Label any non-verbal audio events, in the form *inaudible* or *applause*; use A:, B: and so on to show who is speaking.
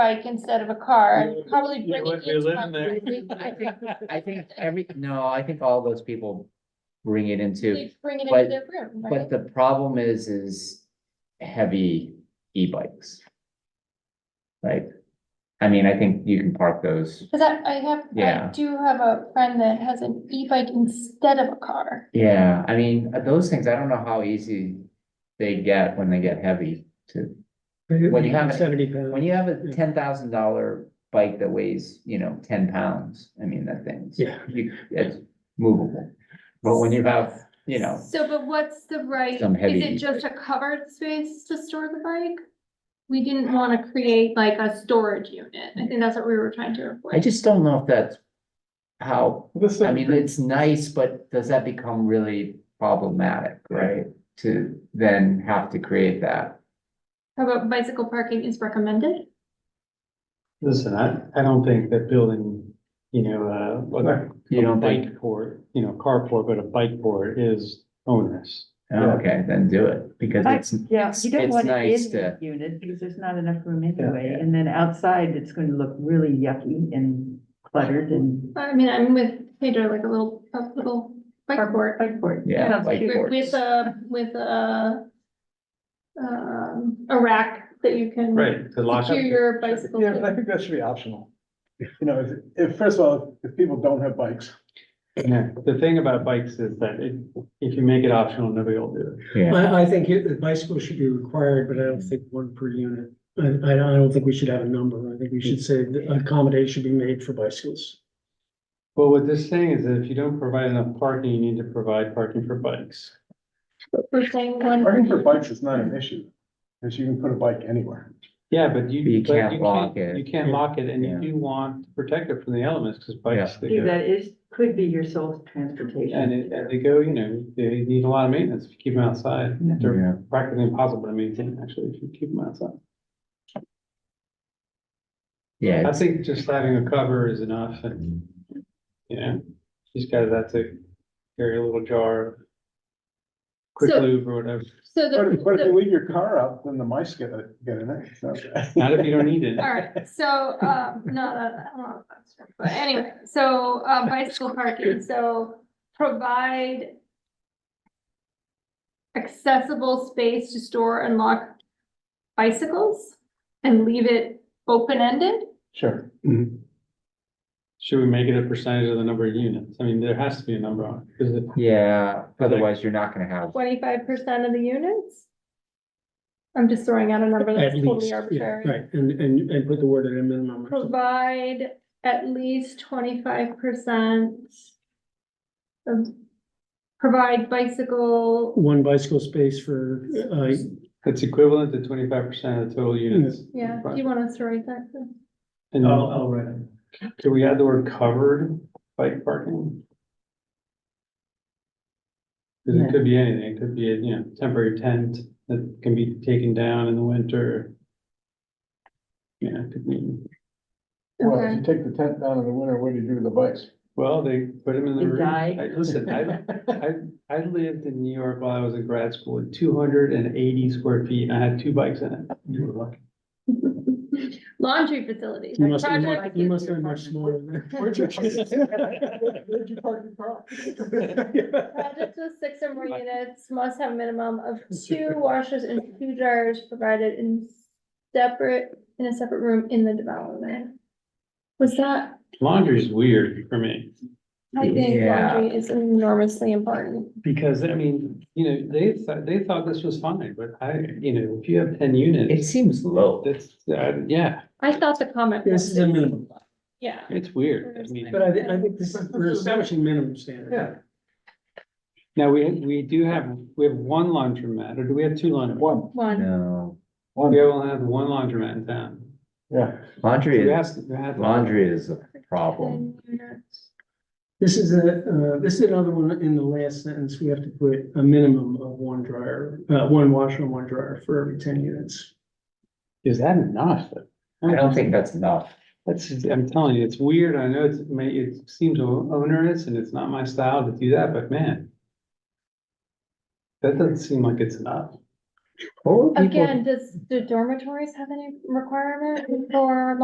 A: bike instead of a car,
B: You
A: I'd probably
B: you
A: bring
B: would
A: it
B: be
A: into
B: living there.
A: my.
C: *laughs* I think every, no, I think all those people bring it into,
A: They'd Bring it
C: But-
A: into their room, right?
C: but the problem is, is heavy e-bikes. Like, I mean, I think you can park those,
A: Cause I, I have, I
C: Yeah.
A: do have a friend that has an e-bike instead of a car.
C: yeah, I mean, those things, I don't know how easy they get when they get heavy to. When you have-
B: Seventy
C: When
B: pounds.
C: you have a
B: Yeah.
C: ten thousand dollar bike that weighs, you know, ten pounds, I mean, that thing's.
B: Yeah.
C: You, it's movable, but when you have, you know,
A: So, but what's the right,
C: Some
A: is it
C: heavy-
A: just a covered space to store the bike? We didn't wanna create like a storage unit, I think that's what we were trying to
C: I
A: avoid.
C: just don't know if that's. How
B: This,
C: I mean, it's nice, but does that become really problematic, right? To then have to create that.
A: How about bicycle parking is recommended?
B: listen, I, I don't think that building, you know, uh, a-
C: You
B: a
C: don't think,
B: bike port, you know, carport, but a bike port is onerous.
C: Oh, okay, then do it, because
D: I-
C: it's,
D: Yeah, you don't
C: it's
D: want it
C: nice
D: in the
C: to-
D: unit because there's not enough room
B: Yeah.
D: anyway, and then outside, it's going to look really yucky and cluttered and.
A: I mean, I'm with Pedro, like a little, a little bike board.
D: Cardboard.
C: Yeah,
D: Sounds
C: like-
D: cute.
A: With with a, with a, um, a rack that you can.
B: To lock up.
A: Secure your bicycle.
E: Yeah,
A: to.
E: but I think that should be optional. You know, if, if, first of all, if people don't have bikes,
B: Yeah, the thing about bikes is that it, if you make it optional, nobody will do it.
C: yeah,
F: I, I think it- the bicycle should be required, but I don't think one per unit. I, I don't I don't think we should have a number. I think we should say that accommodation should be made for bicycles.
B: Well, what this saying is that if you don't provide enough parking, you need to provide parking for bikes.
A: We're saying one.
E: parking for bikes is not an issue. Because you can put a bike anywhere.
B: Yeah, but you.
C: But you
B: but
C: can't lock it.
B: You can't lock it and you
C: Yeah.
B: do want to protect it from the elements because bikes, they
C: uh,
D: See,
B: go,
D: That is, could be your sole
B: and it,
D: transportation.
B: and they go, you know, they need a lot of maintenance if you keep them outside.
D: Yeah.
B: They're
C: yeah,
B: practically impossible to maintain actually if you keep them outside.
C: yeah,
B: I think just having a cover is enough and, you know, she's got that to carry a little jar. of Quick
A: So-
B: lube or whatever,
A: So
E: But if, but if
A: the,
E: you leave your car out, then the mice get, get in it. so.
B: not if you don't need it.
A: *laughs* *laughs* all right, so, um, no, that, I don't know if that's true, but anyway, so, uh, bicycle parking, so provide accessible space to store and lock bicycles and leave it open-ended?
B: Sure. Mm-hmm. Should we make it a percentage of the number of units? I mean, there has to be a number on it, because
C: yeah, otherwise you're not gonna have,
A: Twenty-five percent of the units? I'm just throwing out a number
F: At
A: that's
F: least,
A: totally
F: yeah,
A: arbitrary.
F: right, and, and, and put the word at a minimum.
A: provide at least twenty-five percent of, provide bicycle,
F: One bicycle space for, uh,
B: it's equivalent to twenty-five percent of the total units.
A: yeah, do you
B: Right.
A: want us to write that? down?
B: And
F: I'll write it.
B: can we add the word covered bike parking? Because it could be anything, it could be, a you know, temporary tent that can be taken down in the winter. Yeah, it could be,
E: Well, if you take the tent down in the winter, what do you do with the bikes?
B: well, they put them in the
D: They
B: room.
D: die.
B: I- Listen, I, I, I lived in New York while I was in grad school, at two hundred and eighty square feet, and I had two bikes in it. You were lucky.
A: Okay. Laundry facilities.
F: you must, you
A: project-
F: must- you must have much smaller than.
E: Where'd you park where'd you park your car?
A: Projects with six or
F: *laughs*
A: more units must have a minimum of two washers and two dryers provided in separate, in a separate room in the development. Was that,
B: Laundry's weird for me.
A: I think
C: Yeah.
A: laundry is enormously important.
B: Because, I mean, you know, they thought, they thought this was fine, but I, you know, if you have ten
C: it
B: units,
C: seems low.
B: that's, uh, yeah,
A: I thought the comment.
F: This
A: was-
F: is a minimum,
A: Yeah.
B: it's weird. I mean,
F: *laughs* but I, thi- I think this, is- we're establishing minimum standard.
B: yeah. Now, we, we do have, we have one laundromat, or do we have two laundromats?
E: One,
A: One.
C: No,
E: one,
B: We only have one laundromat in town.
E: yeah.
C: laundry,
B: We
C: is-
B: have, we have-
C: laundry is a problem,
A: Ten units.
F: This is a, uh, this is another one in the last sentence, we have to put a minimum of one dryer, uh, one washer and one dryer for every ten units.
B: Is that enough?
C: I don't think that's enough,
B: That's, I'm telling you, it's weird. I know it's, may, it seems o- onerous and it's not my style to do that, but man. That doesn't seem like it's enough.
C: What were people
A: Again, does, do dormitories have any requirement for